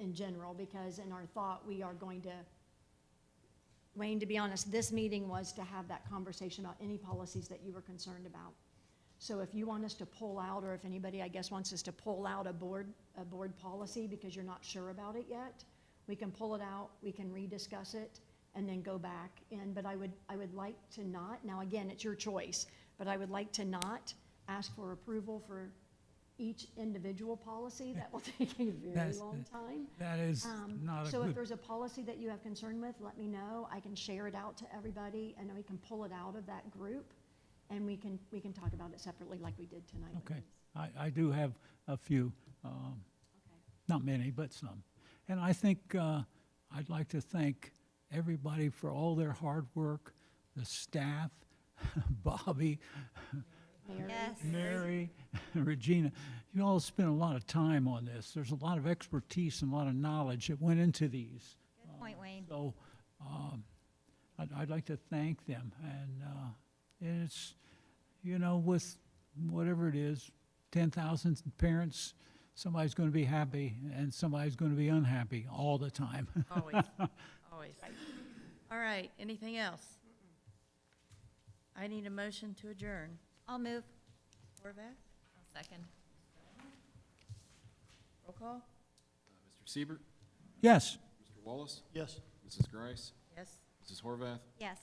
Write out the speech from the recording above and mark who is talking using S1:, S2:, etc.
S1: in general, because in our thought, we are going to, Wayne, to be honest, this meeting was to have that conversation about any policies that you were concerned about. So if you want us to pull out, or if anybody, I guess, wants us to pull out a board, a board policy because you're not sure about it yet, we can pull it out, we can rediscuss it, and then go back in, but I would, I would like to not, now again, it's your choice, but I would like to not ask for approval for each individual policy, that will take a very
S2: That's-
S1: long time.
S2: That is
S1: Um,
S2: not a
S1: So if
S2: good,
S1: there's a policy that you have concern with, let me know, I can share it out to everybody, and then we can pull it out of that group, and we can, we can talk about it separately like we did tonight. with
S2: Okay.
S1: these.
S2: I, I do have a few, um, not many, but some. And I think, uh, I'd like to thank everybody for all their hard work, the staff, Bobby,
S1: Mary?
S3: Yes.
S2: Mary, Regina, you all spent a lot of time on this. There's a lot of expertise and a lot of knowledge that went into these.
S3: Good point, Wayne.
S2: So um, I'd, I'd like to thank them. And uh, and it's, you know, with whatever it is, 10,000 parents, somebody's going to be happy and somebody's going to be unhappy all the time.
S4: Always, always. All right, anything else? I need a motion to adjourn.
S3: I'll move.
S4: Horvath,
S3: Second.
S4: roll call?
S5: Mr. Siebert,
S2: yes.
S5: Mr. Wallace,
S6: Yes.
S5: Mrs. Grice,
S4: Yes.
S5: Mrs. Horvath,
S3: Yes.